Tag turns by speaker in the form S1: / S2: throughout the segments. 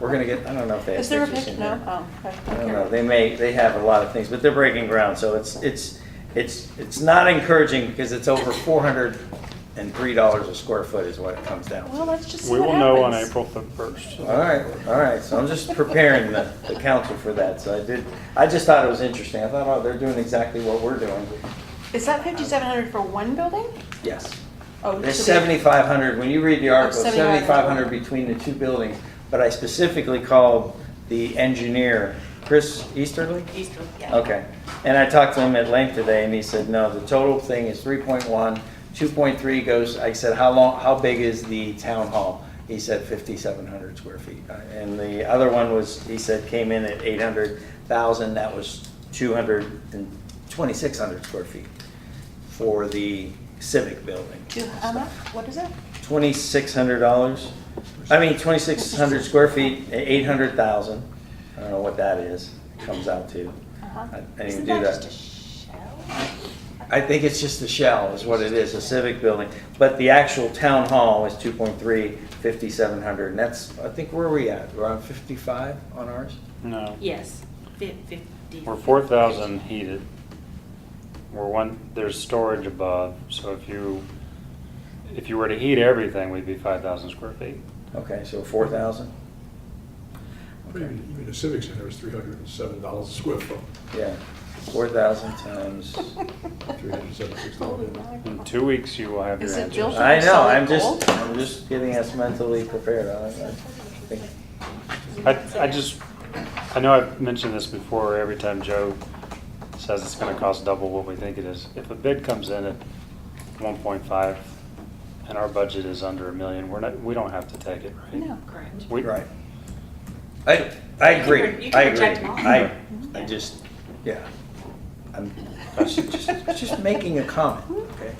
S1: We're gonna get, I don't know if they have
S2: Is there a
S1: pictures in
S2: picture?
S1: there.
S2: No? Oh, okay.
S1: I don't know, they may, they have a lot of things, but they're breaking ground, so it's, it's, it's, it's not encouraging because it's over four hundred and three dollars a square foot is what it comes down to.
S2: Well, let's just see
S3: We
S2: what
S3: will know on
S2: happens.
S3: April the first.
S1: All right, all right, so I'm just preparing the, the council for that, so I did, I just thought it was interesting, I thought, oh, they're doing exactly what we're doing,
S2: Is that fifty-seven hundred for one building?
S1: yes.
S2: Oh,
S1: There's
S2: so we- Oh,
S1: seventy-five hundred, when you read the article,
S2: 7,500.
S1: seventy-five hundred between the two buildings, but I specifically called the engineer, Chris Easterly?
S4: Easterly, yeah.
S1: Okay, and I talked to him at length today, and he said, no, the total thing is 3.1. 2.3 goes, I said, how long, how big is the town hall? He said fifty-seven hundred square feet, Uh, and the other one was, he said, came in at eight hundred thousand, that was two hundred and twenty-six hundred square feet for the civic building.
S2: Do, how much? What is it? Uh-huh.
S1: Twenty-six hundred dollars, I mean, twenty-six hundred square feet, eight hundred thousand, I don't know what that is, comes out to.
S2: Uh-huh.
S1: I didn't
S2: Isn't
S1: even do
S2: that
S1: that.
S2: just a shell?
S1: I think it's just a shell is what it is, a civic building, but the actual town hall is 2.3, 5700, and that's, I think, where are we at? We're on fifty-five on ours?
S3: No.
S4: Yes, fif- fifty.
S3: We're four thousand heated. We're one, there's storage above, so if you, if you were to heat everything, we'd be five thousand square feet.
S1: Okay, so four thousand?
S5: Even even the civic center is three hundred and seven dollars a square foot,
S1: Yeah, four thousand times,
S5: three hundred and seventy-six dollars.
S3: In two weeks, you will have your
S2: Is it
S3: answers.
S2: built-
S1: I know,
S2: Solid
S1: I'm just,
S2: gold?
S1: I'm just getting us mentally prepared, I, I think,
S3: I, I just, I know I've mentioned this before, every time Joe says it's gonna cost double what we think it is. If a bid comes in at one point five and our budget is under a million, we're not, we don't have to take it, right?
S2: No.
S4: Correct.
S3: We-
S1: right. I, I
S4: You can re-
S1: agree, I
S4: you can Mm-hmm. reject
S1: agree,
S4: them all.
S1: I, I just, yeah. I'm, I'm just, just making a comment,
S4: Mm-hmm.
S1: okay?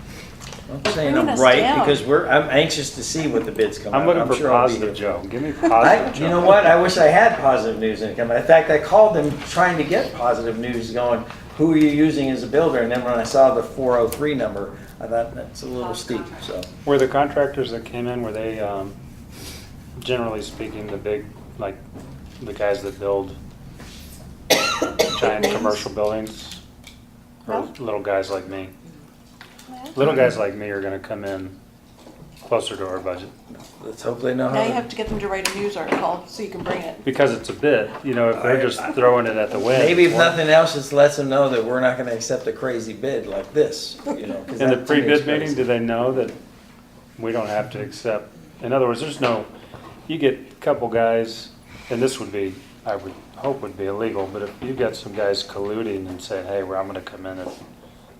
S1: I'm not saying
S2: bringing
S1: I'm
S2: us
S1: right,
S2: down.
S1: because we're, I'm anxious to see what the bids come out.
S3: I'm looking for
S1: sure I'll be
S3: positive
S1: here.
S3: Joe. Give me
S1: I,
S3: positive Joe.
S1: you know what, I wish I had positive news income, in fact, I called them trying to get positive news going, who are you using as a builder, and then when I saw the four oh three number, I thought, that's a little
S4: Oh,
S1: steep,
S4: contract.
S1: so.
S3: Were the contractors that came in, were they, um, generally speaking, the big, like, the guys that build giant commercial buildings? Or
S2: No.
S3: little guys like me?
S2: No?
S3: Little guys like me are gonna come in closer to our budget.
S1: Let's hope they know how
S2: Now you
S1: to-
S2: have to get them to write a news article so you can bring it.
S3: Because it's a bid, you know, if they're just throwing it at the wind.
S1: Maybe if nothing else, just lets them know that we're not gonna accept a crazy bid like this, you know. 'cause
S3: In the
S1: that to me is
S3: pre-bid meeting,
S1: crazy.
S3: do they know that we don't have to accept, in other words, there's no, you get a couple guys, and this would be, I would hope would be illegal, but if you got some guys colluding and saying, hey, well, I'm gonna come in at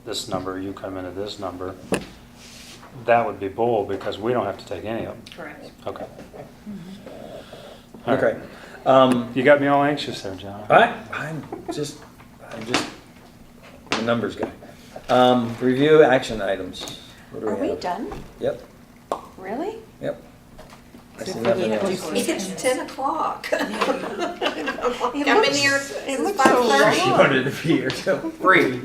S3: this number, you come in at this number, that would be bull, because we don't have to take any of them.
S4: Correct.
S3: Okay. All right.
S1: Okay, um,
S3: You got me all anxious there, John.
S1: I, I'm just, I'm just a numbers guy. Um, review action items. What do
S2: Are we
S1: have?
S2: done?
S1: Yep,
S2: Really?
S1: yep. I see nothing else.
S6: It's ten o'clock. I've been
S2: looks-
S6: here
S2: it
S6: since
S2: looks so
S6: five thirty.
S1: You wanted to be here till three.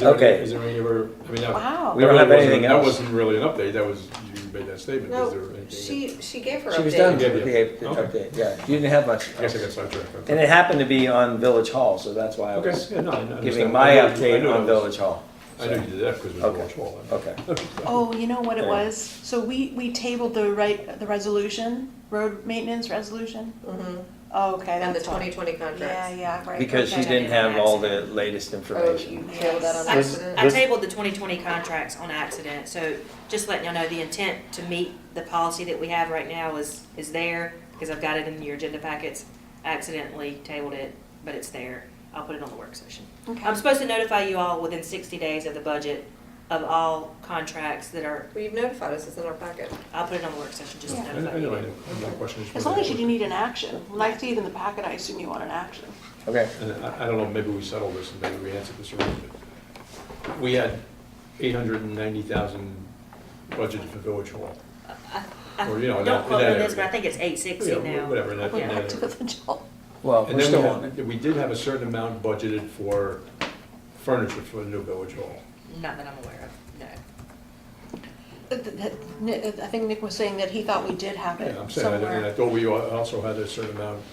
S1: Okay.
S5: Is there any other, I mean, that.
S2: Wow.
S1: We don't
S5: that
S1: have
S5: really
S1: anything
S5: wasn't-
S1: else.
S5: That wasn't really an update, that was, you made that statement, is there
S6: No,
S5: anything? that-
S6: she, she gave her update.
S1: She was done
S5: Yeah,
S1: with the
S5: yeah.
S1: update-
S5: Okay.
S1: update, yeah. You didn't have much.
S5: I guess I got sidetracked. okay.
S1: And it happened to be on Village Hall, so that's why I
S5: Okay,
S1: was
S5: yeah, no, I understand.
S1: giving my
S5: I knew- I knew
S1: update
S5: that
S1: on
S5: was-
S1: Village Hall.
S5: I knew you did that because it was a
S1: Okay.
S5: watch wall.
S1: Okay.
S2: Oh, you know what it
S1: Yeah.
S2: was? So we, we tabled the right, the resolution, road maintenance resolution?
S6: Mhm.
S2: Oh, okay,
S6: And the
S2: that's why.
S6: twenty twenty
S2: Yeah,
S6: contracts.
S2: yeah, right.
S1: Because she
S2: okay.
S1: didn't have all the latest
S6: Oh, you
S1: information.
S6: tabled that on
S4: I
S3: This-
S6: accident?
S4: I tabled the 2020 contracts on accident, so just letting y'all know, the intent to meet the policy that we have right now is, is there, because I've got it in your agenda packets. I Accidentally tabled it, but it's there. I'll put it on the work session.
S2: Okay.
S4: I'm supposed to notify you all within 60 days of the budget of all contracts that are,
S6: Well, you've notified us, it's in our packet.
S4: I'll put it on the work session just to
S5: I
S2: Yeah.
S4: notify
S5: I
S4: you.
S5: know, I know, I'm not questioning.
S2: As long as you didn't need an action. When I see it in the packet, I assume you want an action.
S1: Okay.
S5: And I, I don't know, maybe we settled this and maybe we answered this already, but we had eight hundred and ninety thousand budgeted for Village Hall.
S4: I-
S5: Or, you know, in that-
S4: Don't quote me
S5: in
S4: on
S5: that
S4: this, but I
S5: area.
S4: think it's 860
S5: Yeah,
S4: now.
S5: Whatever, in that, in
S2: Went
S4: Yeah.
S5: that
S2: back to
S5: area.
S2: the job.
S1: Well,
S5: And
S1: we're still
S5: then
S1: on
S5: we had, we did have a certain amount budgeted for furniture for the new Village Hall.
S4: Not that I'm aware of, no.
S2: th- th- Nick- I think Nick was saying that he thought we did have it
S5: Yeah, I'm saying, I-
S2: somewhere.
S5: I thought we al- also had a certain amount